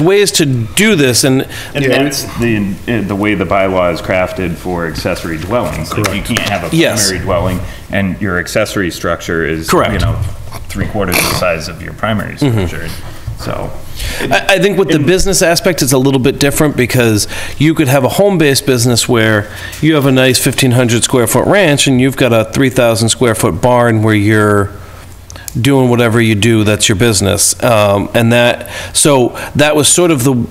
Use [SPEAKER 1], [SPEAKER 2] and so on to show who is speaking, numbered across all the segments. [SPEAKER 1] ways to do this, and
[SPEAKER 2] And that's the, uh, the way the bylaw is crafted for accessory dwellings. Like, You can't have a
[SPEAKER 1] Yes.
[SPEAKER 2] primary dwelling, and your accessory structure is, you
[SPEAKER 1] Correct. Mm-hmm.
[SPEAKER 2] know, three quarters the size of your primary structure, so.
[SPEAKER 1] I, I think with the business aspect, it's a little bit different because you could have a home-based business where you have a nice 1,500 square foot ranch and you've got a 3,000 square foot barn where you're doing whatever you do, that's your business. Um, and that, so that was sort of the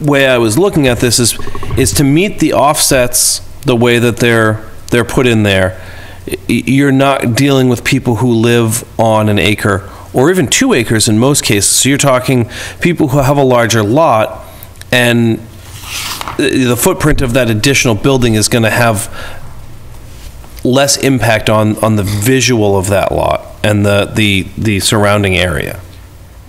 [SPEAKER 1] way I was looking at this is, is to meet the offsets the way that they're, they're put in there. Y- You're not dealing with people who live on an acre or even two acres in most cases. So you're talking people who have a larger lot and the the footprint of that additional building is going to have less impact on, on the visual of that lot and the, the, the surrounding area.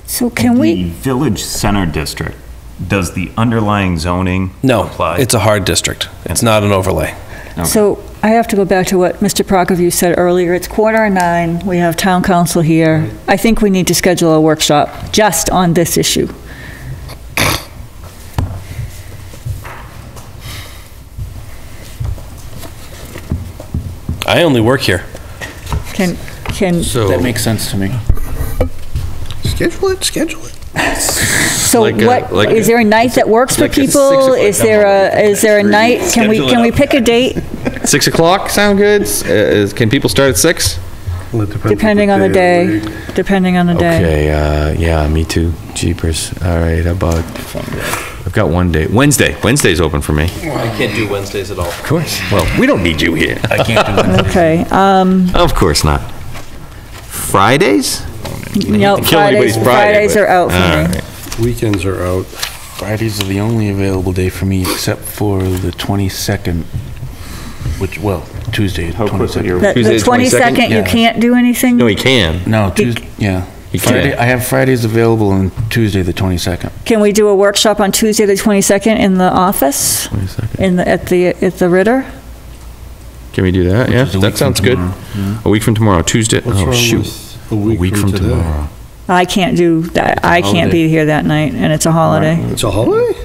[SPEAKER 3] So can
[SPEAKER 2] The
[SPEAKER 3] we,
[SPEAKER 2] Village Center District, does the underlying zoning
[SPEAKER 1] No,
[SPEAKER 2] apply?
[SPEAKER 1] it's a hard district. It's not an overlay.
[SPEAKER 3] so I have to go back to what Mr. Prokofiev said earlier. It's quarter of nine, we have town council here. I think we need to schedule a workshop just on this issue.
[SPEAKER 1] I only work here.
[SPEAKER 3] Can, can,
[SPEAKER 4] That makes sense to me.
[SPEAKER 5] Schedule it, schedule it.
[SPEAKER 3] so
[SPEAKER 4] like a-
[SPEAKER 3] what,
[SPEAKER 4] like
[SPEAKER 3] is there a night that works for
[SPEAKER 4] like a six
[SPEAKER 3] people?
[SPEAKER 4] o'clock
[SPEAKER 3] Is there a, is there a night? Can we,
[SPEAKER 2] Schedule it
[SPEAKER 3] can we
[SPEAKER 2] up.
[SPEAKER 3] pick a date
[SPEAKER 4] Six o'clock sound good? S- uh, is- Can people start at six?
[SPEAKER 5] Well, it depends
[SPEAKER 3] depending on the
[SPEAKER 5] of
[SPEAKER 3] day? Depending on the day.
[SPEAKER 6] Okay, uh, yeah, me too. Jeepers. All right, how about, I've got one day, Wednesday. Wednesday's open for me. Of
[SPEAKER 1] I can't do Wednesdays at all.
[SPEAKER 6] course. Well, we don't need you here.
[SPEAKER 3] Okay, um,
[SPEAKER 6] Of course not. Fridays?
[SPEAKER 3] no,
[SPEAKER 6] Kill anybody's
[SPEAKER 3] Fridays,
[SPEAKER 6] Friday,
[SPEAKER 3] Fridays
[SPEAKER 6] but-
[SPEAKER 3] are out
[SPEAKER 6] All
[SPEAKER 3] for me.
[SPEAKER 6] right.
[SPEAKER 5] Weekends are out.
[SPEAKER 7] Fridays are the only available day for me except for the 22nd, which, well, Tuesday,
[SPEAKER 2] How quickly
[SPEAKER 7] 22nd.
[SPEAKER 2] you're
[SPEAKER 3] The-
[SPEAKER 6] Tuesday
[SPEAKER 3] The
[SPEAKER 6] the 22nd?
[SPEAKER 3] 22nd, you
[SPEAKER 7] Yeah.
[SPEAKER 3] can't do anything?
[SPEAKER 6] No, he can.
[SPEAKER 7] No, Tuesday, yeah.
[SPEAKER 6] You
[SPEAKER 7] Friday,
[SPEAKER 6] can't.
[SPEAKER 7] I have Fridays available on Tuesday, the 22nd.
[SPEAKER 3] Can we do a workshop on Tuesday, the 22nd, in the office? In the, at the, at the Ritter?
[SPEAKER 6] Can we do that? Yeah,
[SPEAKER 7] Which is a week
[SPEAKER 6] that
[SPEAKER 7] from
[SPEAKER 6] sounds good.
[SPEAKER 7] tomorrow.
[SPEAKER 6] A week from tomorrow, Tuesday.
[SPEAKER 5] What's
[SPEAKER 6] Oh,
[SPEAKER 5] wrong
[SPEAKER 6] shoot.
[SPEAKER 5] with a
[SPEAKER 6] A week from tomorrow.
[SPEAKER 3] I can't do that, I can't be here that night, and it's a holiday.
[SPEAKER 5] It's a holiday?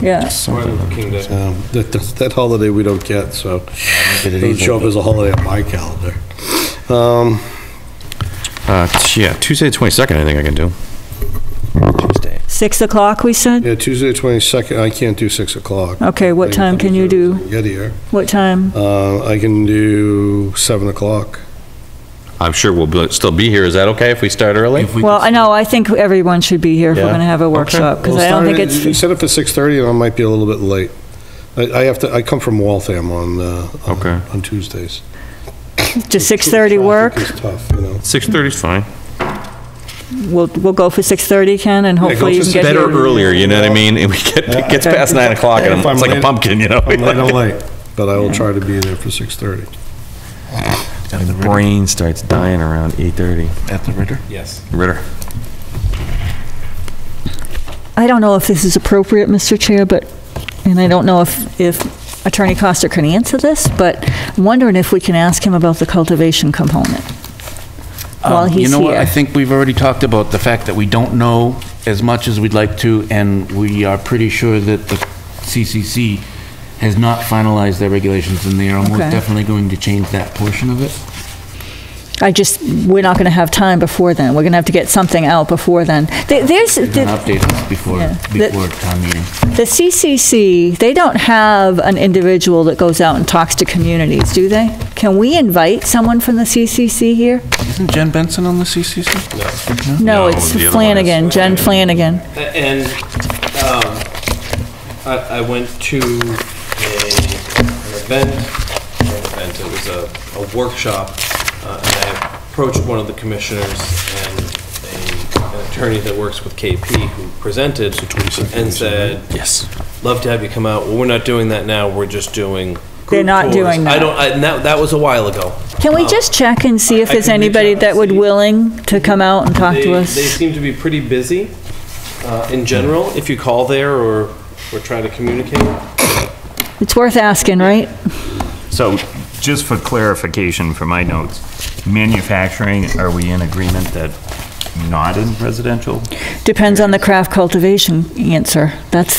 [SPEAKER 3] Yeah,
[SPEAKER 5] Um, That, that's- that holiday we don't get, so
[SPEAKER 7] Did
[SPEAKER 5] it
[SPEAKER 7] it
[SPEAKER 5] doesn't
[SPEAKER 7] either.
[SPEAKER 5] show up as a holiday on my calendar. Um,
[SPEAKER 6] Uh, t- yeah, Tuesday the 22nd, I think I can do.
[SPEAKER 3] 6 o'clock, we said?
[SPEAKER 5] Yeah, Tuesday, 22nd, I can't do 6 o'clock.
[SPEAKER 3] Okay, Uh, what time can you do?
[SPEAKER 5] Get here.
[SPEAKER 3] What time?
[SPEAKER 5] Uh, I can do 7 o'clock.
[SPEAKER 6] I'm sure we'll be- still be here. Is that okay if we start early?
[SPEAKER 3] Well, I know, I think everyone should be here if we're
[SPEAKER 6] Yeah.
[SPEAKER 3] going to have a
[SPEAKER 6] Okay.
[SPEAKER 3] workshop, because I don't think
[SPEAKER 5] You
[SPEAKER 3] it's,
[SPEAKER 5] set it for 6:30 and I might be a little bit late. I, I have to, I come from Waltham on, uh, on-
[SPEAKER 6] Okay.
[SPEAKER 5] on Tuesdays.
[SPEAKER 3] does 6:30 work?
[SPEAKER 5] Traffic is tough, you know.
[SPEAKER 6] 6:30 is fine.
[SPEAKER 3] We'll, we'll go for 6:30, Ken, and
[SPEAKER 5] go
[SPEAKER 3] hopefully you
[SPEAKER 5] for
[SPEAKER 3] can get here.
[SPEAKER 6] Better earlier, you know what I mean? And we get, it gets past nine o'clock and
[SPEAKER 5] If
[SPEAKER 6] I'm-
[SPEAKER 5] I'm
[SPEAKER 6] it's like a
[SPEAKER 5] late-
[SPEAKER 6] pumpkin, you know?
[SPEAKER 5] I'm late, I'm late, but I will try to be there for 6:30.
[SPEAKER 6] The brain starts dying around 8:30.
[SPEAKER 7] At the Ritter?
[SPEAKER 6] Ritter.
[SPEAKER 3] I don't know if this is appropriate, Mr. Chair, but, and I don't know if, if Attorney Costa can answer this, but I'm wondering if we can ask him about the cultivation component while
[SPEAKER 7] Um,
[SPEAKER 3] he's
[SPEAKER 7] You know what, I
[SPEAKER 3] here.
[SPEAKER 7] think we've already talked about the fact that we don't know as much as we'd like to, and we are pretty sure that the CCC has not finalized their regulations, and they are almost
[SPEAKER 3] Okay.
[SPEAKER 7] definitely going to change that portion of it.
[SPEAKER 3] I just, we're not going to have time before then. We're going to have to get something out before then. There- There's,
[SPEAKER 7] They're going
[SPEAKER 3] the
[SPEAKER 7] to update us before,
[SPEAKER 3] Yeah. The-
[SPEAKER 7] before town meeting.
[SPEAKER 3] the CCC, they don't have an individual that goes out and talks to communities, do they? Can we invite someone from the CCC here?
[SPEAKER 7] Isn't Jen Benson on the CCC?
[SPEAKER 3] No, it's
[SPEAKER 6] the other one is-
[SPEAKER 3] Flanagan, Jen Flanagan.
[SPEAKER 1] And um, I, I went to a, an event, not an event, it was a, a workshop, uh, and I approached one of the commissioners and a, an attorney that works with KP who presented and said, "Yes, love to have you come out. Well, we're not doing that now. We're just doing."
[SPEAKER 3] They're
[SPEAKER 1] group
[SPEAKER 3] not
[SPEAKER 1] tours."
[SPEAKER 3] doing
[SPEAKER 1] I
[SPEAKER 3] that.
[SPEAKER 1] don't. I, and that that was a while ago.
[SPEAKER 3] Can we just check and see if
[SPEAKER 1] I
[SPEAKER 3] there's
[SPEAKER 1] can reach
[SPEAKER 3] anybody
[SPEAKER 1] out
[SPEAKER 3] that
[SPEAKER 1] and
[SPEAKER 3] would
[SPEAKER 1] see.
[SPEAKER 3] willing to come out and talk
[SPEAKER 1] they,
[SPEAKER 3] to
[SPEAKER 1] They
[SPEAKER 3] us?
[SPEAKER 1] seem to be pretty busy uh, in general. If you call there or or try to communicate,
[SPEAKER 3] It's worth asking, right?
[SPEAKER 2] So, just for clarification for my notes, manufacturing, are we in agreement that not in residential?
[SPEAKER 3] Depends on the craft cultivation answer. That's